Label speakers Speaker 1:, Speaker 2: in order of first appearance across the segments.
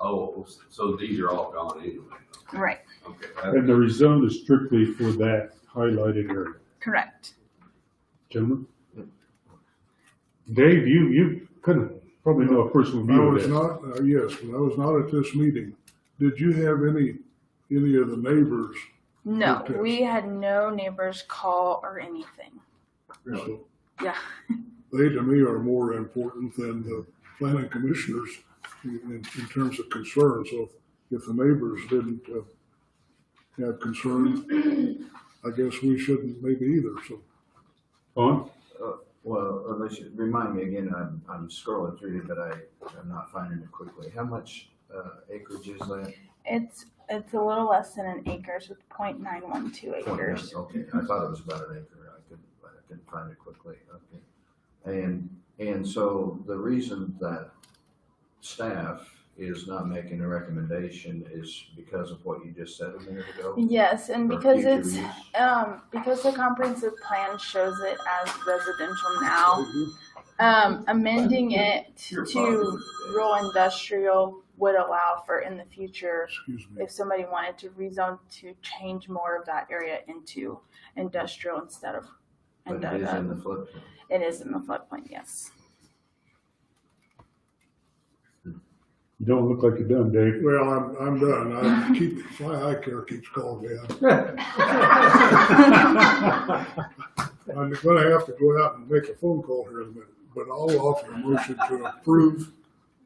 Speaker 1: Oh, so these are all gone anyway.
Speaker 2: Right,
Speaker 1: Okay, that-
Speaker 3: And the rezone is strictly for that highlighted area.
Speaker 2: correct.
Speaker 3: Gentlemen? Dave, you, you could have probably know a personal
Speaker 4: When I
Speaker 3: view of
Speaker 4: was
Speaker 3: that.
Speaker 4: not, uh, yes, when I was not at this meeting, did you have any, any of the neighbors?
Speaker 2: No,
Speaker 4: Okay.
Speaker 2: we had no neighbors call or anything.
Speaker 4: So
Speaker 2: Yeah,
Speaker 4: They to me are more important than the planning commissioners in, in terms of concern. So if the neighbors didn't uh, have concerns, I guess we shouldn't maybe either, so.
Speaker 3: On,
Speaker 5: Well, unless you, remind me again, I'm, I'm scrolling through it, but I, I'm not finding it quickly. How much, uh, acreage is that?
Speaker 2: it's, it's a little less than an acre, so it's point nine one two acres.
Speaker 5: Okay, I thought it was about an acre. I couldn't, I couldn't find it quickly. Okay. And, and so the reason that staff is not making a recommendation is because of what you just said a minute ago?
Speaker 2: Yes, and
Speaker 5: For
Speaker 2: because
Speaker 5: future
Speaker 2: it's,
Speaker 5: use?
Speaker 2: um, because the comprehensive plan shows it as residential now, um, amending it
Speaker 1: Your
Speaker 2: to rural industrial would allow for in the future,
Speaker 4: Excuse me.
Speaker 2: if somebody wanted to rezone to change more of that area into industrial instead of. uh,
Speaker 5: But it is in the flood.
Speaker 2: It is in the floodplain, yes.
Speaker 3: you don't look like you're done, Dave.
Speaker 4: Well, I'm, I'm done. I keep, my eye care keeps calling me. I'm- I'm gonna have to go out and make a phone call here in a minute, but I'll offer a motion to approve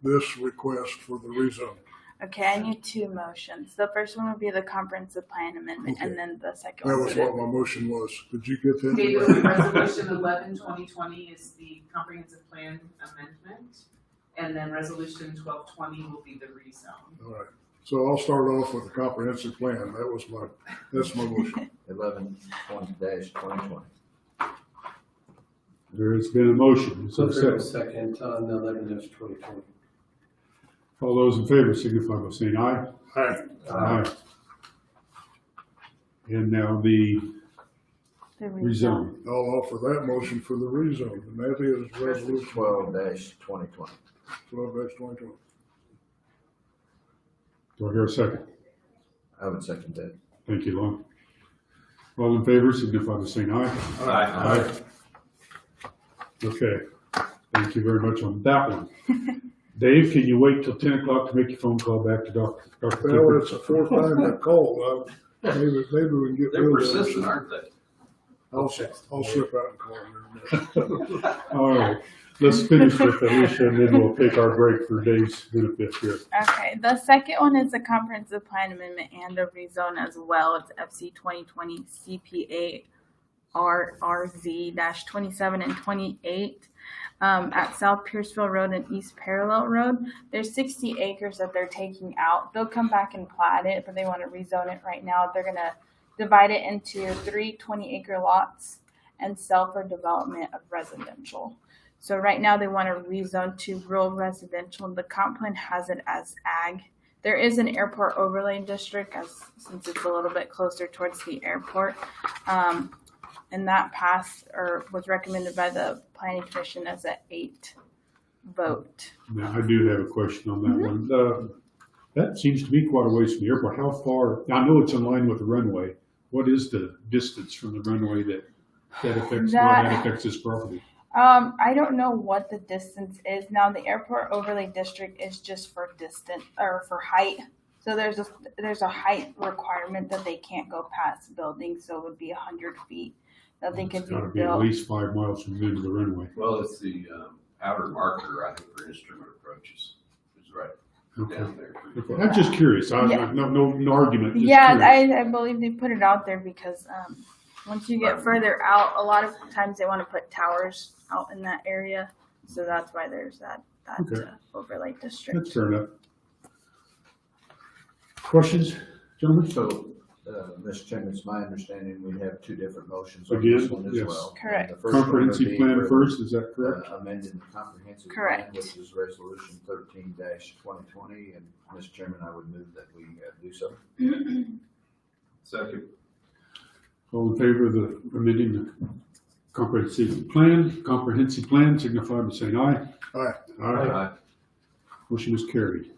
Speaker 4: this request for the rezone.
Speaker 2: Okay, I need two motions. The first one would be the comprehensive plan amendment, and
Speaker 4: Okay.
Speaker 2: then the second
Speaker 4: That
Speaker 2: one
Speaker 4: was
Speaker 2: would
Speaker 4: what my motion was. Did you get that?
Speaker 6: Okay, with resolution eleven twenty twenty is the comprehensive plan amendment. And then resolution twelve twenty will be the rezone.
Speaker 4: All right. So I'll start off with the comprehensive plan. That was my, that's my motion.
Speaker 5: Eleven twenty dash twenty twenty.
Speaker 3: There's been a motion. Is there
Speaker 7: So
Speaker 3: a
Speaker 7: there's a
Speaker 3: second?
Speaker 7: second on the eleven dash twenty twenty.
Speaker 3: All those in favor signify by saying aye.
Speaker 4: Aye.
Speaker 3: Aye. And now the
Speaker 2: The
Speaker 3: rezone.
Speaker 4: I'll offer that motion for the rezone, and that is resolution
Speaker 5: Twelve dash twenty twenty.
Speaker 4: twelve twenty twenty.
Speaker 3: Do I hear a second?
Speaker 5: I would second that.
Speaker 3: Thank you, Lon. All in favor signify by saying aye.
Speaker 1: I- I-
Speaker 3: Okay, thank you very much on that one. Dave, can you wait till ten o'clock to make your phone call back to Dr. Dr.
Speaker 4: Well,
Speaker 3: Clifford?
Speaker 4: it's the fourth time I called. I- Maybe, maybe we can get
Speaker 1: They're
Speaker 4: rid of
Speaker 1: persistent,
Speaker 4: that.
Speaker 1: aren't they?
Speaker 4: I'll, I'll slip out and call him. here in a minute.
Speaker 3: All right, let's finish with Alicia and then we'll take our break for Dave's benefit here.
Speaker 2: Okay, the second one is the comprehensive plan amendment and the rezone as well. It's FC twenty twenty CPA RRZ dash twenty-seven and twenty-eight. Um, at South Pierceville Road and East Parallel Road, there's sixty acres that they're taking out. They'll come back and plat it, but they wanna rezone it right now. They're gonna divide it into three 20 acre lots and sell for development of residential. So right now they want to rezone to rural residential. The comp plan has it as ag. There is an airport overlay district as since it's a little bit closer towards the airport. Um, and that passed or was recommended by the planning commission as a eight vote.
Speaker 3: Now, I do have a question on that one. Uh, That seems to be quite a ways from the airport. How far, I know it's in line with the runway. What is the distance from the runway that, that affects, well, that
Speaker 2: That-
Speaker 3: affects this property?
Speaker 2: Um, I don't know what the distance is. Now the airport overlay district is just for distance or for height. So there's a there's a height requirement that they can't go past buildings, so it would be a hundred feet that they could
Speaker 3: It's
Speaker 2: be
Speaker 3: gotta be at
Speaker 2: built.
Speaker 3: least five miles from the end of the runway.
Speaker 1: Well, it's the um, outer marker, I think, for instrument approaches. It's right
Speaker 3: Okay.
Speaker 1: down there.
Speaker 3: Okay, I'm just curious. I,
Speaker 2: Yeah.
Speaker 3: I, no, no, no argument. Just
Speaker 2: Yeah,
Speaker 3: curious.
Speaker 2: I, I believe they put it out there because um, once you get further out, a lot of times they want to put towers out in that area, so that's why there's that that
Speaker 3: Okay.
Speaker 2: uh, overlay district.
Speaker 3: That's fair enough. Questions, gentlemen?
Speaker 5: So, uh, Mr. Chairman, it's my understanding we have two different motions on this
Speaker 3: Again,
Speaker 5: one as
Speaker 3: yes.
Speaker 5: well.
Speaker 2: Correct.
Speaker 5: The first one would
Speaker 3: Comprehensive
Speaker 5: be
Speaker 3: plan
Speaker 5: for,
Speaker 3: first, is that
Speaker 5: uh,
Speaker 3: correct?
Speaker 5: Amending the comprehensive plan,
Speaker 2: Correct.
Speaker 5: which is resolution thirteen twenty twenty, and Mr. Chairman, I would move that we uh, do so.
Speaker 1: Second,
Speaker 3: All in favor of the amending the comprehensive plan, comprehensive plan, signify by saying aye.
Speaker 4: Aye.
Speaker 3: Aye.
Speaker 1: I
Speaker 3: Motion is carried.